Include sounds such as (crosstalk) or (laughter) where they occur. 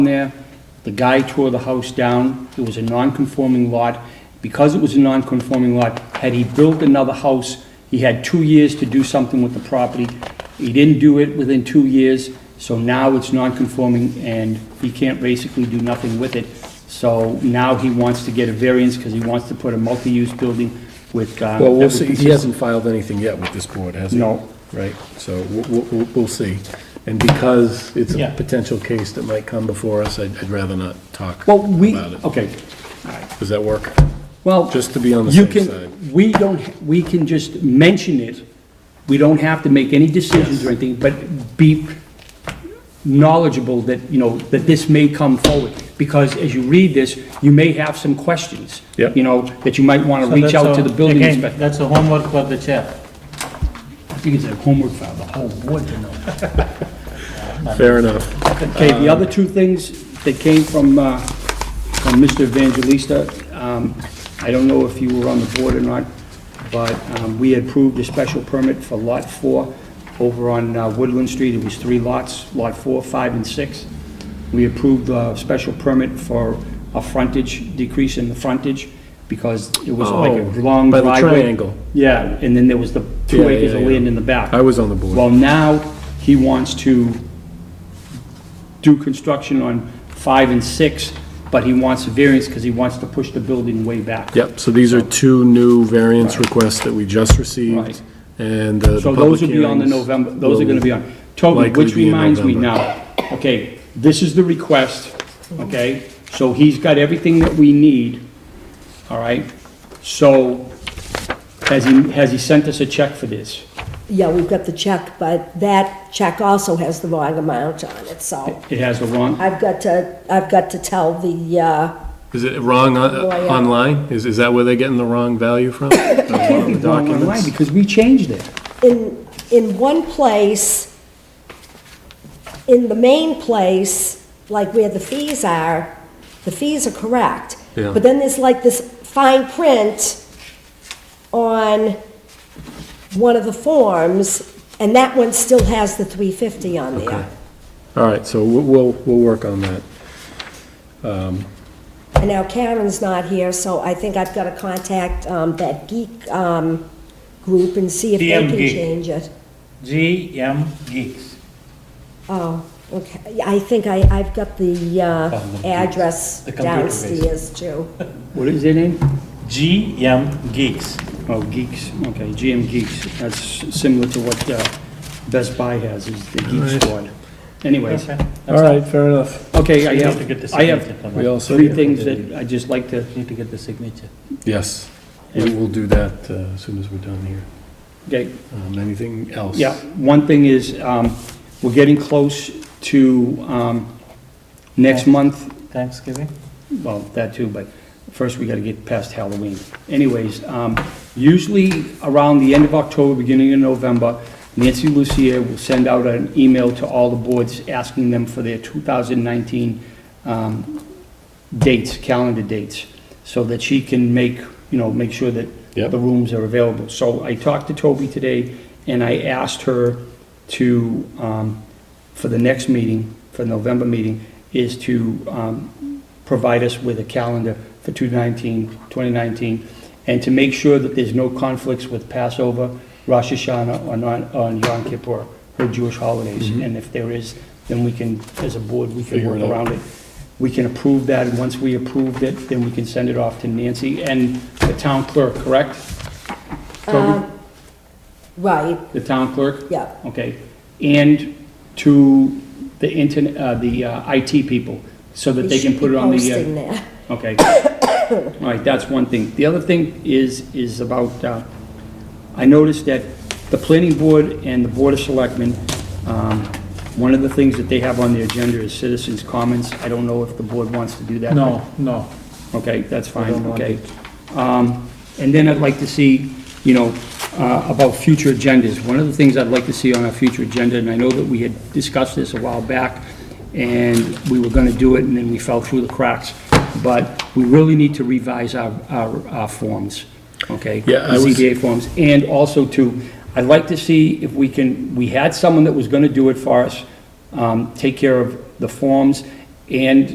there. The guy tore the house down. It was a non-conforming lot. Because it was a non-conforming lot, had he built another house, he had two years to do something with the property. He didn't do it within two years, so now it's non-conforming and he can't basically do nothing with it. So now he wants to get a variance because he wants to put a multi-use building with, uh, Well, we'll that would see, he consist- hasn't filed anything yet with this board, has he? No. Right, so we'll- we'll, we'll- we'll see. And because it's Yeah. a potential case that might come before us, I'd I'd rather not talk Well, we, about it. okay, Does that work? well. Just to be on the You safe side. can, we don't, we can just mention it, we don't have to make any decisions or anything, but be knowledgeable that, you know, that this may come forward, because as you read this, you may have some questions. Yep. You know, that you might want to So reach that's out to a- the building again, inspector. That's a homework for the chair. I think it's a homework for the whole board to know. Fair enough. Okay, the other two things that came from, uh, from Mr. Evangelista, um, I don't know if you were on the board or not, but um, we approved a special permit for Lot 4 over on uh, Woodland Street. It was three lots, Lot 4, 5, and 6. We approved a special permit for a frontage, decrease in the frontage, because it was like a Oh, long by the driveway. triangle. Yeah, and then there was the Yeah, two yeah, acres of yeah. land in the back. I was on the board. Well, now, he wants to do construction on five and six, but he wants a variance because he wants to push the building way back. Yep, so these are two new variance requests that we just Right. received, and uh, the So public those will be on the hearings November, those are will- gonna be on. Toby, likely which be in reminds me November. now, okay, this is the request, okay? So he's got everything that we need, all right? So, has he, has he sent us a check for this? Yeah, we've got the check, but that check also has the wrong amount on it, so It has the wrong, I've got to, I've got to tell the, uh, Is it wrong on- Lawyer. online? Is, is that where they're getting the wrong (laughs) value from? can't be wrong online because we changed it. in, in one place, in the main place, like where the fees are, the fees are correct. Yeah. But then there's like this fine print on one of the forms, and that one still has the 350 on Okay. there. All right, so we'll, we'll, we'll work on that. And now Karen's not here, so I think I've got to contact um, that geek um, group and see if they DM can Geek. change it. GM Geeks. Oh, okay. Yeah, I think I, I've got the uh, address downstairs too. What is their name? GM Geeks. Oh, Geeks, okay, GM Geeks, that's similar to what uh, Best Buy has, is the Geek Squad. Anyways, Okay. All right, fair enough. okay, I We have to get the have, I signature have from We her. all set? three things that I'd just like to, Need to get the signature. Yes, we will do that uh, as soon as we're done here. okay, Um, Anything else? yeah, one thing is, um, we're getting close to um, next month, Thanksgiving? well, that too, but first we gotta get past Halloween. Anyways, um, usually around the end of October, beginning of November, Nancy Lucia will send out an email to all the boards asking them for their 2019 um, dates, calendar dates, so that she can make, you know, make sure that Yep. the rooms are available. So I talked to Toby today, and I asked her to, um, for the next meeting, for November meeting, is to um, provide us with a calendar for 2019, 2019, and to make sure that there's no conflicts with Passover, Rosh Hashanah, or non- or Yom Kippur, or Jewish holidays. And if there is, then we can, as a board, we can Mm-hmm. Figure work it out. around it. We can approve that, and once we approve it, then we can send it off to Nancy and the town clerk, correct? Toby? Uh, Right, The town clerk? yeah. Okay, and to the internet, uh, the uh, IT people, so that they can put it on the. uh, We should be posting that. Okay. (coughs) All right, that's one thing. The other thing is, is about, uh, I noticed that the planning board and the board of selectmen, um, one of the things that they have on their agenda is citizens' comments. I don't know if the board wants to do that. No, no. Okay, that's I fine, don't want okay. Um, And then I'd like to see, you know, uh, about future agendas. One of the things I'd like to see on our future agenda, and I know that we had discussed this a while back, and we were going to do it, and then we fell through the cracks, but we really need to revise our, our our forms, okay? Yeah, I was- ZBA forms, and also to, I'd like to see if we can, we had someone that was going to do it for us, um, take care of the forms and